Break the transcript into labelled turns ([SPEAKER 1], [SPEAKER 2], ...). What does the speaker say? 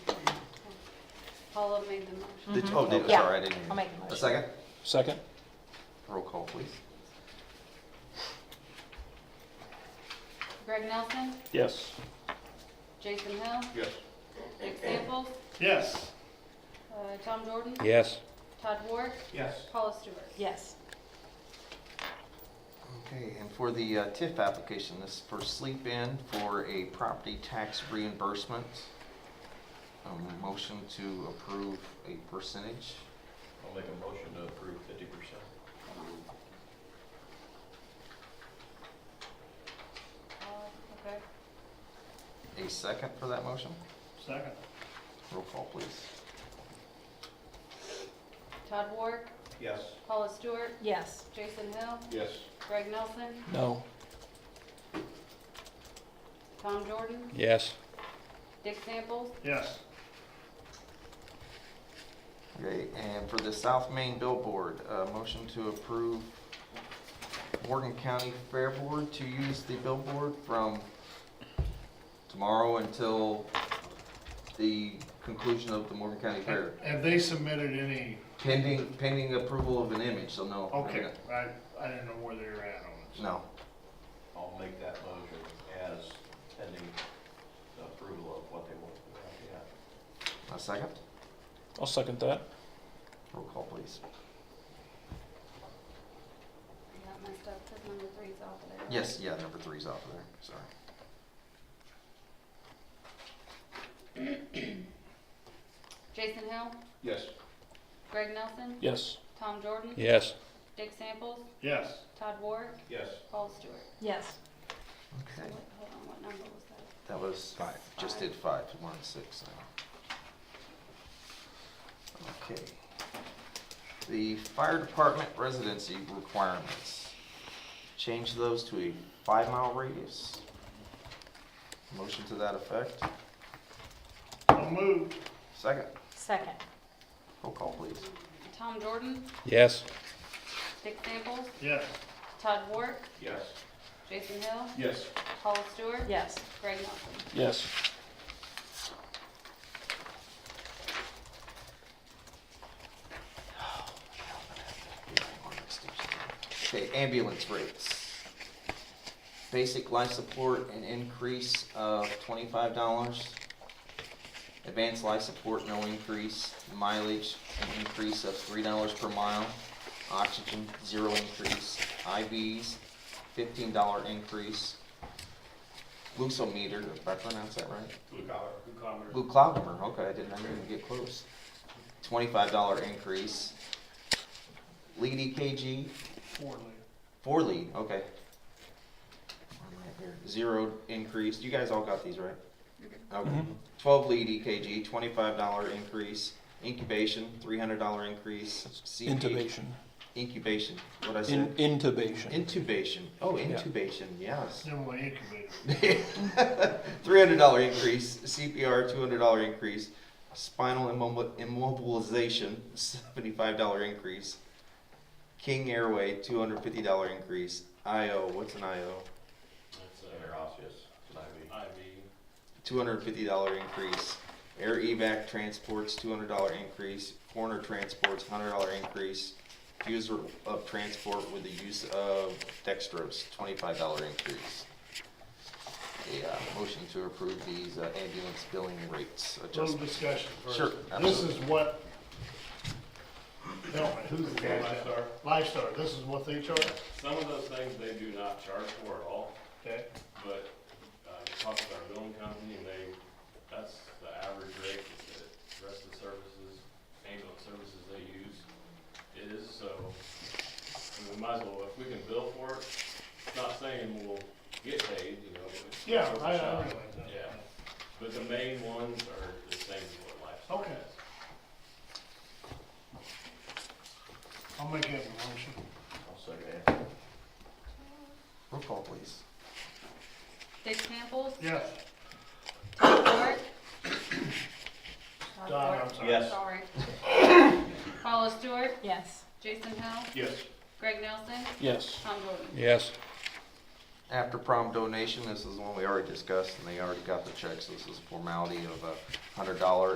[SPEAKER 1] Paula made the motion.
[SPEAKER 2] Did, oh, did,
[SPEAKER 3] Mm-hmm. Yeah,
[SPEAKER 2] sorry, I didn't hear.
[SPEAKER 3] I'll make the
[SPEAKER 2] A
[SPEAKER 3] motion.
[SPEAKER 2] second?
[SPEAKER 4] Second?
[SPEAKER 2] Roll call, please.
[SPEAKER 1] Greg Nelson,
[SPEAKER 4] Yes.
[SPEAKER 1] Jason Hill,
[SPEAKER 5] Yes.
[SPEAKER 1] Dick Samples,
[SPEAKER 5] Yes.
[SPEAKER 1] uh, Tom Jordan,
[SPEAKER 4] Yes.
[SPEAKER 1] Todd Ward,
[SPEAKER 5] Yes.
[SPEAKER 1] Paula Stewart.
[SPEAKER 3] Yes.
[SPEAKER 2] Okay, and for the uh, TIF application, this is for sleep-in for a property tax reimbursement. Um, Motion to approve a percentage.
[SPEAKER 5] I'll make a motion to approve fifty percent.
[SPEAKER 1] Oh, okay.
[SPEAKER 2] A second for that motion?
[SPEAKER 5] Second.
[SPEAKER 2] Roll call, please.
[SPEAKER 1] Todd Ward,
[SPEAKER 5] Yes.
[SPEAKER 1] Paula Stewart,
[SPEAKER 3] Yes.
[SPEAKER 1] Jason Hill,
[SPEAKER 5] Yes.
[SPEAKER 1] Greg Nelson,
[SPEAKER 4] No.
[SPEAKER 1] Tom Jordan,
[SPEAKER 4] Yes.
[SPEAKER 1] Dick Samples,
[SPEAKER 5] Yes.
[SPEAKER 2] Okay, and for the South Main billboard, uh, motion to approve Morgan County Fair Board to use the billboard from tomorrow until the conclusion of the Morgan County Fair.
[SPEAKER 6] Have they submitted any,
[SPEAKER 2] Pending, pending approval of an image, so no.
[SPEAKER 6] okay, I, I didn't know where they were at on it.
[SPEAKER 2] No.
[SPEAKER 5] I'll make that motion as pending the approval of what they want to do. Yeah.
[SPEAKER 2] A second?
[SPEAKER 4] I'll second that.
[SPEAKER 2] Roll call, please.
[SPEAKER 1] you got messed up, because number three's off of there.
[SPEAKER 2] Yes, yeah, number three's off of there, sorry.
[SPEAKER 1] Jason Hill,
[SPEAKER 5] Yes.
[SPEAKER 1] Greg Nelson,
[SPEAKER 4] Yes.
[SPEAKER 1] Tom Jordan,
[SPEAKER 4] Yes.
[SPEAKER 1] Dick Samples,
[SPEAKER 6] Yes,
[SPEAKER 1] Todd Ward,
[SPEAKER 5] Yes.
[SPEAKER 1] Paula Stewart.
[SPEAKER 3] Yes.
[SPEAKER 1] So
[SPEAKER 2] Okay,
[SPEAKER 1] what, hold on, what number was that?
[SPEAKER 2] that was, just did five, we're on six now. Okay. The fire department residency requirements. Change those to a five-mile radius. Motion to that effect.
[SPEAKER 6] I'll move,
[SPEAKER 2] Second,
[SPEAKER 3] Second.
[SPEAKER 2] roll call, please.
[SPEAKER 1] Tom Jordan,
[SPEAKER 4] Yes.
[SPEAKER 1] Dick Samples,
[SPEAKER 6] yes,
[SPEAKER 1] Todd Ward,
[SPEAKER 5] Yes.
[SPEAKER 1] Jason Hill,
[SPEAKER 5] Yes.
[SPEAKER 1] Paula Stewart,
[SPEAKER 3] Yes.
[SPEAKER 1] Greg Nelson.
[SPEAKER 4] Yes.
[SPEAKER 2] Okay, ambulance rates. Basic life support, an increase of twenty-five dollars. Advanced life support, no increase. Mileage, an increase of three dollars per mile. Oxygen, zero increase. IVs, fifteen dollar increase. Glucometer, if I pronounce that right?
[SPEAKER 5] Blue collar.
[SPEAKER 2] Blue Cloudmer, okay, I didn't, I didn't even get close. Twenty-five dollar increase. Lead EKG,
[SPEAKER 6] four later.
[SPEAKER 2] four lead, okay. One right here. Zero increase, you guys all got these, right? Okay,
[SPEAKER 4] Mhm.
[SPEAKER 2] twelve lead EKG, twenty-five dollar increase. Incubation, three hundred dollar increase. CP
[SPEAKER 4] Intubation.
[SPEAKER 2] Incubation, what'd I
[SPEAKER 4] In-
[SPEAKER 2] say?
[SPEAKER 4] intubation.
[SPEAKER 2] Intubation, oh,
[SPEAKER 4] Yeah.
[SPEAKER 2] intubation, yes.
[SPEAKER 6] Then we incubate.
[SPEAKER 2] Three hundred dollar increase, CPR two hundred dollar increase, spinal immob- immobilization seventy five dollar increase, King Airway two hundred fifty dollar increase, IO what's an IO
[SPEAKER 5] uh, Interosseous. It's an IV. IV.
[SPEAKER 2] two hundred fifty dollar increase, air evac transports two hundred dollar increase, corner transports hundred dollar increase, user of transport with the use of dextrose twenty five dollar increase. A uh, motion to approve these uh, ambulance billing rates
[SPEAKER 6] Little
[SPEAKER 2] adjustments.
[SPEAKER 6] discussion first.
[SPEAKER 2] Sure,
[SPEAKER 6] This
[SPEAKER 2] absolutely.
[SPEAKER 6] is what, help me, who's the guy?
[SPEAKER 7] Lifestar.
[SPEAKER 6] Lifestar, this is what they charge,
[SPEAKER 7] Some of those things they do not charge for at all,
[SPEAKER 6] okay?
[SPEAKER 7] but uh, you talk with our billing company, and they, that's the average rate that the rest of the services, ambulance services they use is, so we might as well, if we can bill for it, not saying we'll get paid, you know. but it's
[SPEAKER 6] Yeah,
[SPEAKER 7] worth a
[SPEAKER 6] I, I
[SPEAKER 7] shot.
[SPEAKER 6] realize that.
[SPEAKER 7] Yeah, but the main ones are the same as what Lifestar
[SPEAKER 6] Okay.
[SPEAKER 7] does.
[SPEAKER 6] I'll make that a motion.
[SPEAKER 5] I'll second that.
[SPEAKER 2] Roll call, please.
[SPEAKER 1] Dick Samples,
[SPEAKER 6] Yes,
[SPEAKER 1] Todd Ward. Todd
[SPEAKER 6] Don,
[SPEAKER 1] Ward.
[SPEAKER 6] I'm sorry.
[SPEAKER 5] Yes.
[SPEAKER 1] Sorry. Paula Stewart,
[SPEAKER 3] Yes.
[SPEAKER 1] Jason Hill,
[SPEAKER 5] Yes.
[SPEAKER 1] Greg Nelson,
[SPEAKER 4] Yes.
[SPEAKER 1] Tom Jordan.
[SPEAKER 4] Yes.
[SPEAKER 2] After prom donation, this is the one we already discussed, and they already got the checks, this is a formality of a uh, hundred dollar